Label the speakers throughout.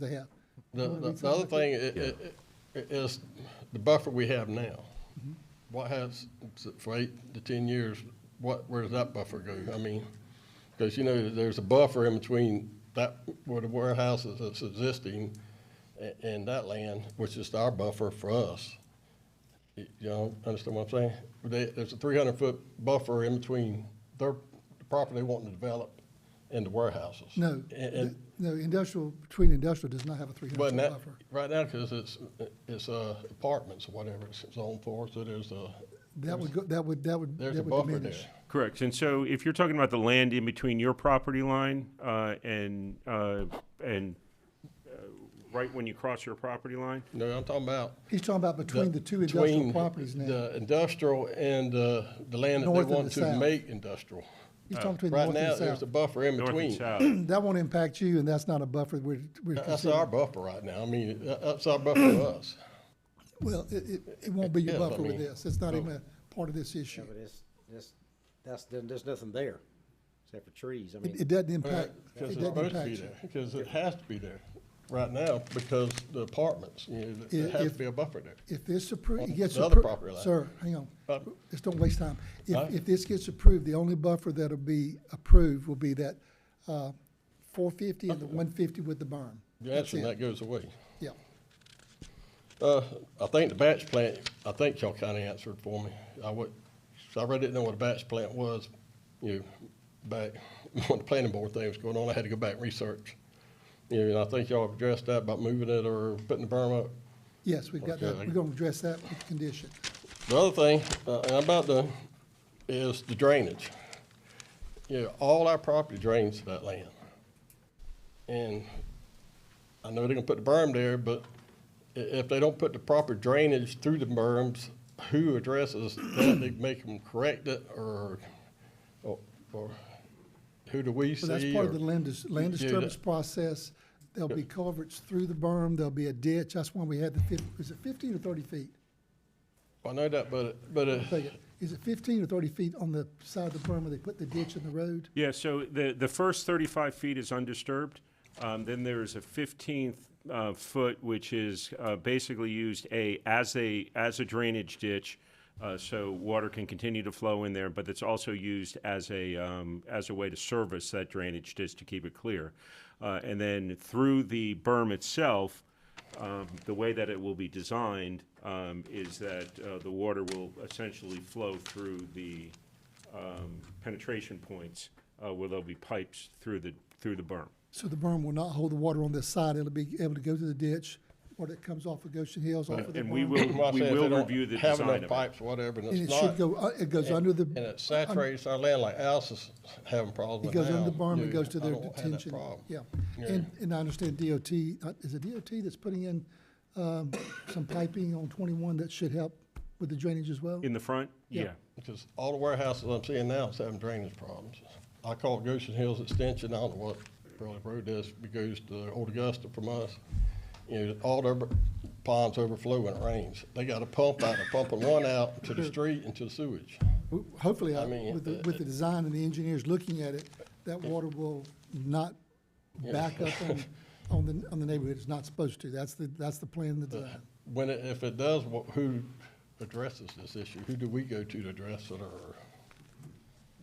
Speaker 1: they have.
Speaker 2: The, the- the other thing i- i- i- is the buffer we have now. What has, for eight to ten years, what, where does that buffer go? I mean, because you know, there's a buffer in between that, where the warehouse is that's existing a- and that land, which is our buffer for us. Y- Y'all understand what I'm saying? They, there's a three hundred foot buffer in between their property they want to develop and the warehouses.
Speaker 1: No,
Speaker 2: A- and-
Speaker 1: th- no, industrial, between industrial does not have a three
Speaker 2: Well,
Speaker 1: hundred foot
Speaker 2: now,
Speaker 1: buffer.
Speaker 2: right now, because it's, it's uh, apartments or whatever it's zoned for, so there's a,
Speaker 1: That would go, that would, that would,
Speaker 2: there's
Speaker 1: that
Speaker 2: a
Speaker 1: would
Speaker 2: buffer there.
Speaker 1: diminish.
Speaker 3: Correct. And so if you're talking about the land in between your property line uh, and, uh, and uh, right when you cross your property line,
Speaker 2: No, I'm talking about.
Speaker 1: He's talking about
Speaker 2: the-
Speaker 1: between the two industrial
Speaker 2: between
Speaker 1: properties now.
Speaker 2: The industrial and uh, the land that
Speaker 1: North
Speaker 2: they
Speaker 1: and the
Speaker 2: want to
Speaker 1: south.
Speaker 2: make industrial.
Speaker 1: He's talking between
Speaker 2: Right
Speaker 1: north
Speaker 2: now,
Speaker 1: and
Speaker 2: there's
Speaker 1: south.
Speaker 2: a buffer in
Speaker 3: north and
Speaker 2: between.
Speaker 3: south.
Speaker 1: That won't impact you, and that's not a buffer we're, we're
Speaker 2: That's
Speaker 1: considering.
Speaker 2: our buffer right now. I mean, that- that's our buffer for us.
Speaker 1: Well, it, it, it won't be your
Speaker 2: Yeah, but I
Speaker 1: buffer with
Speaker 2: mean,
Speaker 1: this. It's not even a part of this issue.
Speaker 4: Yeah, but it's, it's, that's, there- there's nothing there, except for trees, I mean.
Speaker 1: It, it doesn't impact, it
Speaker 2: Because
Speaker 1: doesn't
Speaker 2: it's supposed to
Speaker 1: impact
Speaker 2: be
Speaker 1: you.
Speaker 2: there, because it has to be there right now because the apartments, you know, there
Speaker 1: If-
Speaker 2: has
Speaker 1: if-
Speaker 2: to be a buffer there.
Speaker 1: If this appro, it gets
Speaker 2: the other property
Speaker 1: approved,
Speaker 2: line.
Speaker 1: sir, hang on,
Speaker 2: Pardon?
Speaker 1: just don't waste time.
Speaker 2: Huh?
Speaker 1: If, if this gets approved, the only buffer that'll be approved will be that, uh, four fifty and the one fifty with the berm.
Speaker 2: Yes,
Speaker 1: That's
Speaker 2: and
Speaker 1: it.
Speaker 2: that goes away.
Speaker 1: Yeah,
Speaker 2: Uh, I think the batch plant, I think y'all kinda answered for me. I would, I really didn't know what a batch plant was, you know, back when the planning board thing was going on, I had to go back and research. You know, and I think y'all addressed that about moving it or putting the berm up.
Speaker 1: yes, we've got that.
Speaker 2: Okay.
Speaker 1: We're gonna address that with the condition.
Speaker 2: The other thing, uh, and I'm about to, is the drainage. You know, all our property drains to that land. And I know they're gonna put the berm there, but i- if they don't put the proper drainage through the berms, who addresses that? They make them correct it or, or, or who do we see?
Speaker 1: So that's part of
Speaker 2: or-
Speaker 1: the land, dis- land
Speaker 2: Yeah, that-
Speaker 1: disturbance process. There'll be culverts through the berm, there'll be a ditch. That's when we had the fif, is it fifteen or thirty feet?
Speaker 2: I know that, but, it- but, uh, it-
Speaker 1: Take it. Is it fifteen or thirty feet on the side of the berm where they put the ditch in the road?
Speaker 3: Yeah, so the, the first 35 feet is undisturbed. Um, Then there's a 15th uh, foot, which is uh, basically used a, as a, as a drainage ditch, uh, so water can continue to flow in there, but it's also used as a, um, as a way to service that drainage ditch to keep it clear. Uh, And then through the berm itself, um, the way that it will be designed um, is that uh, the water will essentially flow through the, um, penetration points uh, where there'll be pipes through the, through the berm.
Speaker 1: So the berm will not hold the water on this side, it'll be able to go to the ditch, or it comes off of Goshen Hills, off of the
Speaker 3: And we
Speaker 1: berm.
Speaker 3: will,
Speaker 2: Well, I
Speaker 3: we
Speaker 2: said if they
Speaker 3: will
Speaker 2: don't
Speaker 3: review the
Speaker 2: Have
Speaker 3: design
Speaker 2: enough
Speaker 3: of it.
Speaker 2: pipes, whatever, and
Speaker 1: And
Speaker 2: it's
Speaker 1: it
Speaker 2: not.
Speaker 1: should go, uh, it goes under
Speaker 2: And
Speaker 1: the,
Speaker 2: it saturates our land like Alice is having problems
Speaker 1: it
Speaker 2: with
Speaker 1: goes
Speaker 2: now.
Speaker 1: under the berm,
Speaker 2: Yeah,
Speaker 1: it goes to
Speaker 2: I
Speaker 1: their
Speaker 2: don't have that
Speaker 1: detention.
Speaker 2: problem.
Speaker 1: Yeah,
Speaker 2: Yeah.
Speaker 1: and, and I understand DOT, uh, is it DOT that's putting in, um, some piping on twenty-one that should help with the drainage as well?
Speaker 3: In the front?
Speaker 1: Yeah.
Speaker 3: Yeah.
Speaker 2: Because all the warehouses I'm seeing now is having drainage problems. I called Goshen Hills Extension, I don't know what Burley Road is, it goes to Old Augusta from us. You know, all their ponds overflow when it rains. They got a pump out, they're pumping one out to the street and to the sewage.
Speaker 1: Ho- Hopefully, I-
Speaker 2: I mean, uh,
Speaker 1: with the, with the design and the engineers looking at it, that water will not back up on, on the, on the neighborhood, it's not supposed to, that's the, that's the plan, the
Speaker 2: Uh,
Speaker 1: design.
Speaker 2: When it, if it does, wha- who addresses this issue? Who do we go to to address it or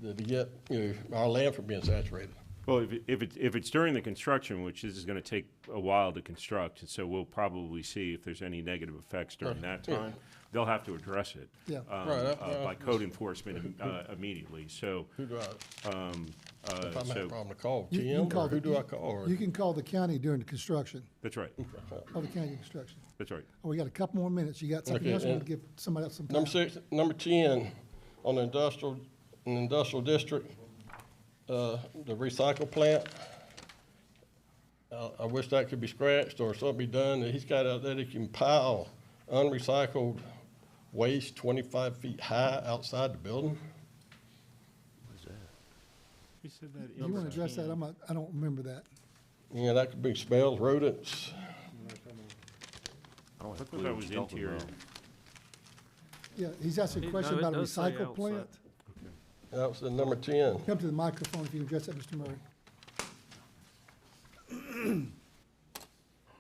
Speaker 2: to get, you know, our land from being saturated?
Speaker 3: Well, if, it- if it's, if it's during the construction, which this is gonna take a while to construct, and so we'll probably see if there's any negative effects during that time. They'll have to address it.
Speaker 1: Yeah.
Speaker 3: um,
Speaker 2: Right, that-
Speaker 3: uh, By
Speaker 2: that-
Speaker 3: code enforcement uh, immediately, so,
Speaker 2: Who do I,
Speaker 3: um, uh,
Speaker 2: if I'm having a
Speaker 3: so,
Speaker 2: problem to call,
Speaker 1: You- you can
Speaker 2: Jim,
Speaker 1: call
Speaker 2: or
Speaker 1: the-
Speaker 2: who do I call? or-
Speaker 1: You can call the county during the construction,
Speaker 3: that's right,
Speaker 1: call the county construction.
Speaker 3: that's right.
Speaker 1: Oh, we got a couple more minutes, you got something
Speaker 2: Okay,
Speaker 1: else, we'll
Speaker 2: and-
Speaker 1: give somebody else some time.
Speaker 2: Number six, number ten, on the industrial, in the industrial district, uh, the recycle plant. Uh, I wish that could be scratched or something be done, he's got out there that can pile unrecycled waste twenty-five feet high outside the building.
Speaker 1: You wanna address that, I'm not, I don't remember that.
Speaker 2: Yeah, that could be smells, rodents,
Speaker 5: I
Speaker 3: I
Speaker 5: don't have a
Speaker 3: thought
Speaker 5: clue
Speaker 3: that
Speaker 5: what
Speaker 3: was
Speaker 5: you're talking
Speaker 3: interior.
Speaker 5: about.
Speaker 1: Yeah, he's asking a
Speaker 5: It-
Speaker 1: question
Speaker 5: no, it
Speaker 1: about a
Speaker 5: does say
Speaker 1: recycle plant.
Speaker 5: outside.
Speaker 2: that was the number ten.
Speaker 1: Come to the microphone if you address that, Mr. Murray.